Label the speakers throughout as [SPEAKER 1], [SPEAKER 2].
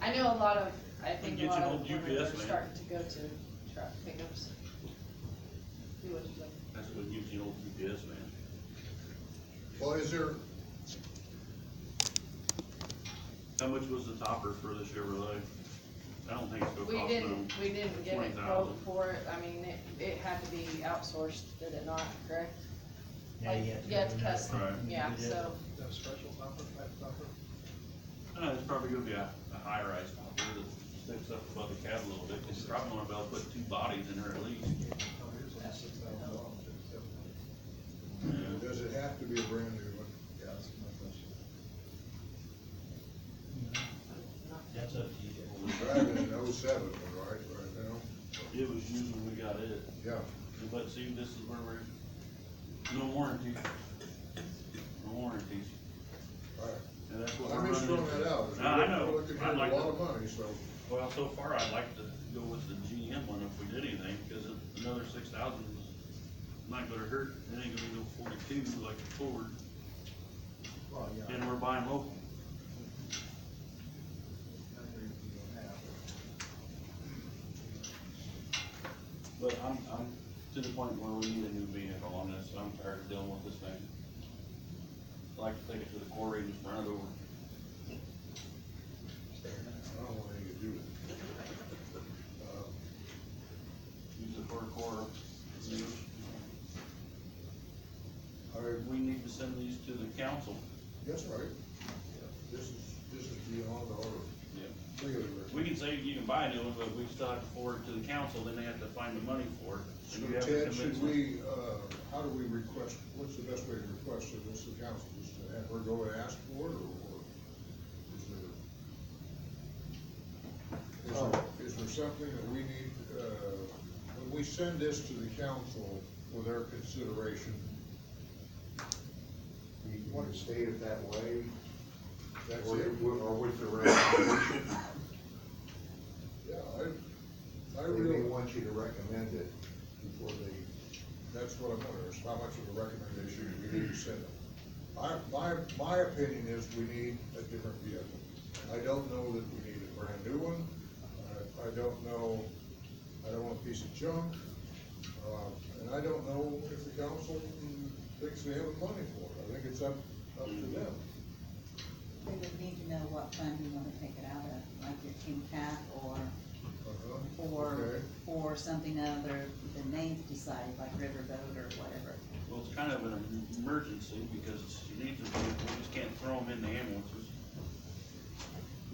[SPEAKER 1] I know a lot of, I think a
[SPEAKER 2] Get
[SPEAKER 1] lot
[SPEAKER 2] you an
[SPEAKER 1] of
[SPEAKER 2] old
[SPEAKER 1] women are
[SPEAKER 2] UPS man.
[SPEAKER 1] starting to go to truck pickups. Do what you like.
[SPEAKER 2] That's what gives you old GPS, man.
[SPEAKER 3] Well, is there,
[SPEAKER 2] How much was the topper for the Chevrolet? I don't think it's gonna
[SPEAKER 1] We
[SPEAKER 2] cost them.
[SPEAKER 1] didn't, we didn't get a
[SPEAKER 2] 20,000.
[SPEAKER 1] quote for it, I mean, it, it had to be outsourced, did it not, correct?
[SPEAKER 4] Yeah, you have to.
[SPEAKER 1] Yeah, it's
[SPEAKER 4] do another-
[SPEAKER 1] custom,
[SPEAKER 2] Right.
[SPEAKER 1] yeah, so,
[SPEAKER 3] uh,
[SPEAKER 5] That special topper, that topper?
[SPEAKER 2] Uh, it's probably gonna be a, a high-rise topper that sticks up above the cab a little bit. It's probably gonna about put two bodies in there at least.
[SPEAKER 5] Oh, here's like six thousand dollars, six, seven.
[SPEAKER 2] Yeah.
[SPEAKER 3] does it have to be a brand new one?
[SPEAKER 5] Yeah, that's my question.
[SPEAKER 4] That's up to you.
[SPEAKER 3] We're driving an oh-seven one, right, right now?
[SPEAKER 2] It was used when we got it,
[SPEAKER 3] Yeah,
[SPEAKER 2] but see, this is where we're, no warranty. No warranties,
[SPEAKER 3] all
[SPEAKER 2] and that's what we're
[SPEAKER 3] right. I'm
[SPEAKER 2] running
[SPEAKER 3] just
[SPEAKER 2] into.
[SPEAKER 3] throwing that out.
[SPEAKER 2] No, I know.
[SPEAKER 3] We're Looking at
[SPEAKER 2] I'd
[SPEAKER 3] a
[SPEAKER 2] like
[SPEAKER 3] lot
[SPEAKER 2] to-
[SPEAKER 3] of money, so,
[SPEAKER 2] Well, so far, I'd like to go with the GM one if we did anything, because another six thousand is not gonna hurt, it ain't gonna be no forty-two like the Ford,
[SPEAKER 5] Well, yeah, I
[SPEAKER 2] and we're buying local.
[SPEAKER 5] agree with you on that, but
[SPEAKER 2] But I'm, I'm to the point where we need a new vehicle on this, I'm tired of dealing with this thing. I'd like to take it to the quarry and just run it over.
[SPEAKER 3] I don't want anything to do with it. Uh,
[SPEAKER 2] Use it for a quarter.
[SPEAKER 3] All
[SPEAKER 2] Or
[SPEAKER 3] right,
[SPEAKER 2] we need to send these to the council.
[SPEAKER 3] that's all right. This is, this is beyond our,
[SPEAKER 2] Yeah.
[SPEAKER 3] three of
[SPEAKER 2] We can say you can buy a new one, but we still have to forward it to the council, then they have to find the money for it. And you have
[SPEAKER 3] So
[SPEAKER 2] to
[SPEAKER 3] Ted,
[SPEAKER 2] convince
[SPEAKER 3] should
[SPEAKER 2] them.
[SPEAKER 3] we, uh, how do we request, what's the best way to request of this to council, is to have her go and ask for it, or, or is there? Is
[SPEAKER 6] Oh.
[SPEAKER 3] there, is there something that we need, uh, when we send this to the council for their consideration,
[SPEAKER 6] You want to state it that way,
[SPEAKER 3] that's
[SPEAKER 6] or,
[SPEAKER 3] it?
[SPEAKER 6] or with the recommendation,
[SPEAKER 3] Yeah, I, I
[SPEAKER 6] they may
[SPEAKER 3] really,
[SPEAKER 6] want you to recommend it before they,
[SPEAKER 3] that's what I'm wondering, is how much of a recommendation we need to send them. I, my, my opinion is we need a different vehicle. I don't know that we need a brand new one. I, I don't know, I don't want a piece of junk. Uh, and I don't know if the council thinks they have the money for it. I think it's up, up to them.
[SPEAKER 7] We would need to know what fund you wanna take it out of, like your King Cap or,
[SPEAKER 3] Uh-huh.
[SPEAKER 7] or,
[SPEAKER 3] Okay.
[SPEAKER 7] or something other than names decided, like Riverboat or whatever.
[SPEAKER 2] Well, it's kind of an emergency because you need to, we just can't throw them in the ambulances.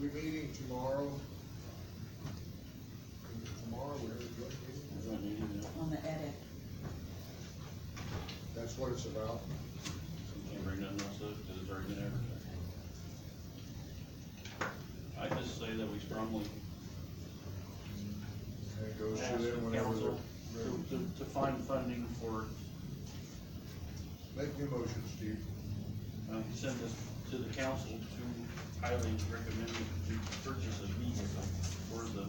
[SPEAKER 3] We're meeting tomorrow. Tomorrow, we're having a joint meeting.
[SPEAKER 2] Is that needed?
[SPEAKER 7] On the edit,
[SPEAKER 3] That's what it's about.
[SPEAKER 2] Can't bring nothing else up because it's already been advertised. I just say that we strongly
[SPEAKER 3] And it goes
[SPEAKER 2] ask
[SPEAKER 3] to them
[SPEAKER 2] the
[SPEAKER 3] whenever
[SPEAKER 2] council
[SPEAKER 3] they're.
[SPEAKER 2] to, to, to find funding for,
[SPEAKER 3] Make the motion, Steve.
[SPEAKER 2] um, send this to the council to highly recommend to purchase a vehicle for the,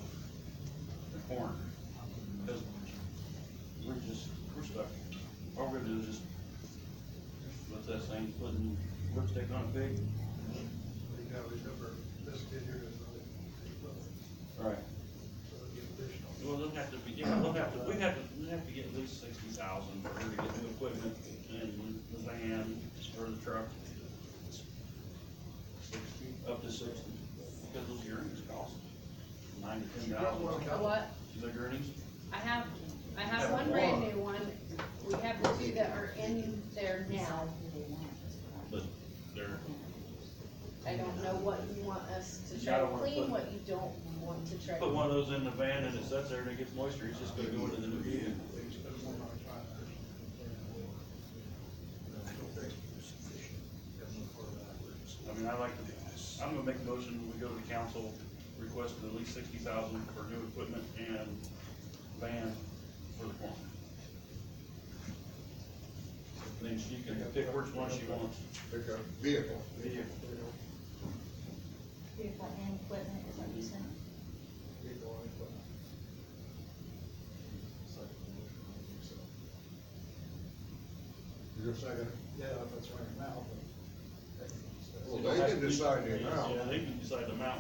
[SPEAKER 2] the coroner. Because we're just, we're stuck. All we're gonna do is just, what's that saying, putting lipstick on a pig?
[SPEAKER 5] you gotta remember, this figure is only eight level,
[SPEAKER 2] Right.
[SPEAKER 5] so it'll be additional.
[SPEAKER 2] Well, they'll have to be, yeah, they'll have to, we have to, we have to get at least sixty thousand for her to get new equipment and the van or the truck. Sixty, up to sixty, because those earnings cost nine to ten dollars.
[SPEAKER 1] A what?
[SPEAKER 2] Is that earnings?
[SPEAKER 1] I have, I
[SPEAKER 2] Have
[SPEAKER 1] have one brand new one, we have the two that are in there now.
[SPEAKER 7] decide who they want. that's what I-
[SPEAKER 2] But they're,
[SPEAKER 1] I don't know what you want us to
[SPEAKER 2] You
[SPEAKER 1] try to
[SPEAKER 2] don't wanna put-
[SPEAKER 1] clean, what you don't want to try. to-
[SPEAKER 2] put one of those in the van and it sits there and it gets moisture, it's just gonna go into the new vehicle.
[SPEAKER 5] There's one on five hundred. Got one for that.
[SPEAKER 2] I mean, I like to, I'm gonna make a motion, we go to the council, request at least sixty thousand for new equipment and van for the corner. Then she can pick which one she wants.
[SPEAKER 3] Pick up vehicle.
[SPEAKER 7] Vehicle and equipment is what you said.
[SPEAKER 5] Vehicle on equipment. Second motion, I think so.
[SPEAKER 3] You're second.
[SPEAKER 5] Yeah, that's right now, but.
[SPEAKER 3] Well, they can decide the amount.
[SPEAKER 2] Yeah, they can decide the amount,